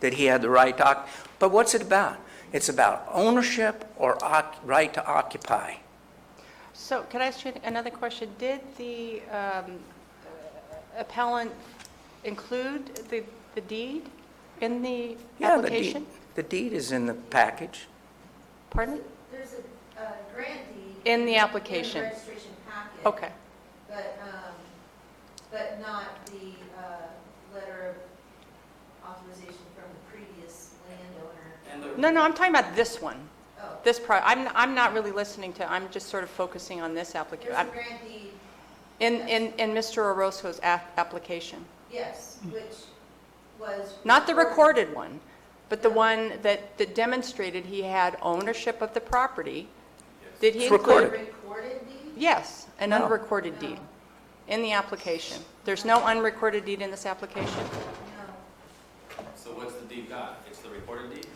that he had the right to, oc- but what's it about? It's about ownership or oc- right to occupy. So could I ask you another question? Did the um, appellant include the the deed in the Yeah, the deed, application? the deed is in the package. Pardon? There's a uh, grantee. In the application. In the registration packet. Okay, But, um, but not the uh, letter of authorization from the previous landowner. no, no, I'm talking about this one, Oh, this pro, I'm, I'm not really listening to, I'm just sort of focusing on this there's a application, grantee, in, in, in Mr. Orozco's a- application. yes, which was. Not the recorded one, but the one that, that demonstrated he had ownership of the property. Did he It's include? The recorded. recorded deed? Yes, Oh. an No. unrecorded deed in the application. There's no unrecorded deed in this application, No. So what's the deed got? It's the recorded deed?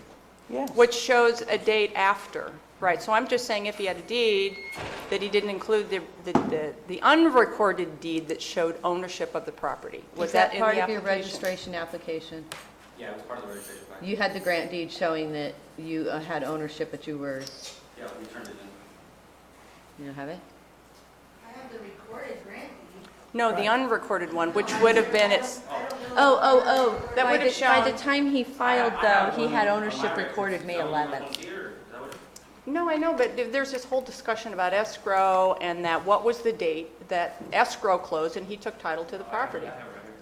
Yes. which shows a date after, right? So I'm just saying if he had a deed, that he didn't include the, the, the- the unrecorded deed that showed ownership of the property. Was that in the part of your application? registration application? Yeah, it was part of the registration plan. You had the grant deed showing that you uh, had ownership, but you were, Yeah, we turned it in. you don't have it? I have the recorded grant deed. No, the unrecorded one, which would have been its, I don't know. Oh, oh, oh. That By would've the- By shown- the time he filed, I- I though, have he one had on my ownership record. recorded May So you want one 11th. here? Is that what- no, I know, but th- there's this whole discussion about escrow and that, what was the date that escrow closed and he took title to the property? I have it right here.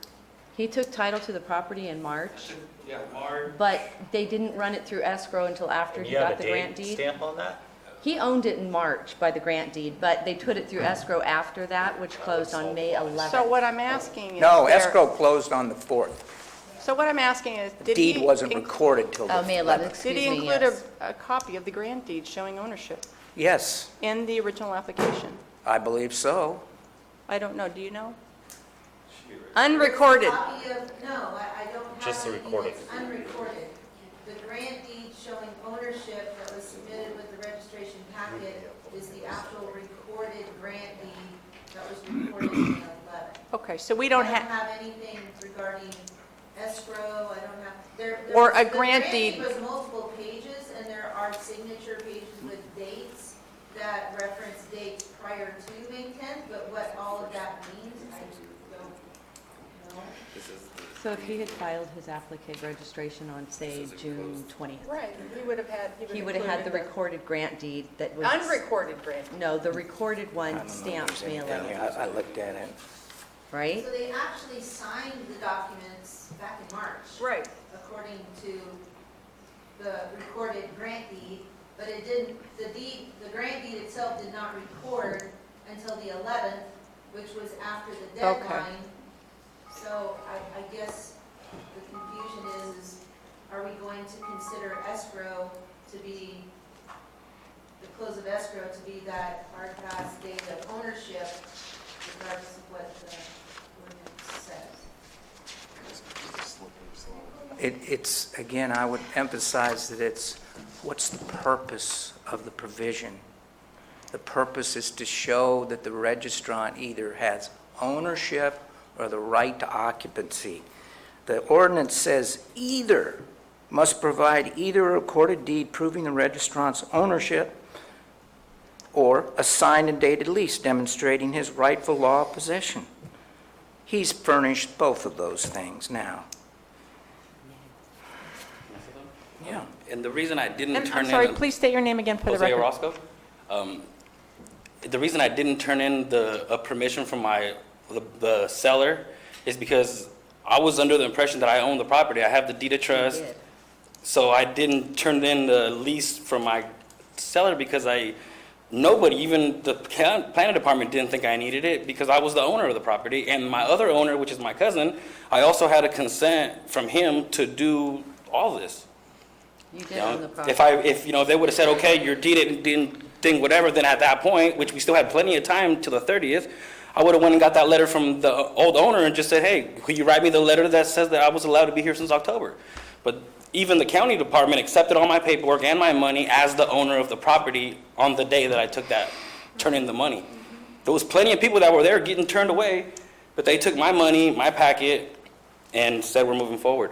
He took title to the property in March, Yeah, Mark, but they didn't run it through escrow until after he got the grant You have a date deed. stamp on that? He owned it in March by the grant deed, but they put it through escrow after that, which closed on May So 11th. what I'm asking is. No, there- escrow closed on the 4th. So what I'm asking is, The did he... deed wasn't inc- recorded till the Oh, May 11th, 11th. excuse Did he me, include a, yes. a copy of the grant deed showing ownership Yes, in the original application? I believe so. I don't know, do you know? shoot, right? Unrecorded. Copy of, no, I, I don't have. Just the anything recorded. that's Unrecorded. The grant deed showing ownership that was submitted with the registration packet is the actual recorded grant deed that was recorded in the letter. Okay, so we don't I don't have, have anything regarding escrow, I don't have, there. there Or was- a grant deed. The grant deed was multiple pages, and there are signature pages with dates that reference dates prior to May 10th, but what all of that means, I don't know. So if he had filed his application registration on, say, June 20th, right, he would have had, he would have had the recorded grant deed that was. Unrecorded grant. No, the recorded I one don't know if there's stamped May anything. 11th, I I looked at it. right? So they actually signed the documents back in March. Right. According to the recorded grant deed, but it didn't, the deed, the grant deed itself did not record until the 11th, which was after the Okay. deadline. So I, I guess the confusion is, is are we going to consider escrow to be, the close of escrow to be that hard pass date of ownership regardless of what the ordinance says? It, it's, again, I would emphasize that it's, what's the purpose of the provision? The purpose is to show that the registrant either has ownership or the right to occupancy. The ordinance says either must provide either a recorded deed proving the registrant's ownership or a signed and dated lease demonstrating his rightful law of possession. He's furnished both of those things now. Yeah. And the reason I didn't I'm turn I'm in... sorry, please state your name again for the Jose record. Orozco. Um, The reason I didn't turn in the, a permission from my, the- the seller is because I was under the impression that I owned the property. I have the deed of trust. did. So I didn't turn in the lease from my seller because I, nobody, even the plan- planning department didn't think I needed it because I was the owner of the property. And my other owner, which is my cousin, I also had a consent from him to do all this. You You did own the know, property. If I, if, you know, they would have said, okay, your deed didn't, didn't, thing, whatever, then at that point, which we still had plenty of time till the thirtieth, I would have went and got that letter from the old owner and just said, hey, could you write me the letter that says that I was allowed to be here since October? But even the county department accepted all my paperwork and my money as the owner of the property on the day that I took that, turned in the money. There was plenty of people that were there getting turned away, but they took my money, my packet, and said we're moving forward.